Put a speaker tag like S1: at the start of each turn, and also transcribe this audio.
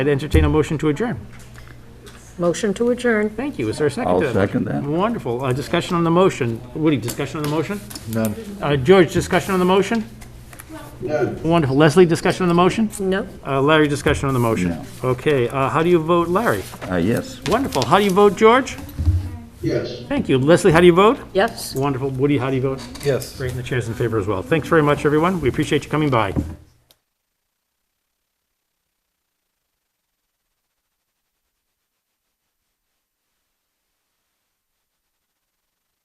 S1: I'd entertain a motion to adjourn.
S2: Motion to adjourn.
S1: Thank you. Is there a second
S3: I'll
S1: to that? motion?
S3: second that.
S1: Wonderful. Uh, Discussion on the motion. Woody, discussion on the motion?
S4: None.
S1: Uh, George, discussion on the motion? Wonderful. Leslie, discussion on the motion?
S2: No.
S1: Uh, Larry, discussion on the motion?
S3: No.
S1: Okay, uh, how do you vote, Larry?
S3: Uh, yes.
S1: Wonderful. How do you vote, George?
S4: Yes.
S1: Thank you. Leslie, how do you vote?
S2: Yes.
S1: Wonderful. Woody, how do you vote?
S4: Yes.
S1: Great, and the chair's in favor as well. Thanks very much, everyone. We appreciate you coming by.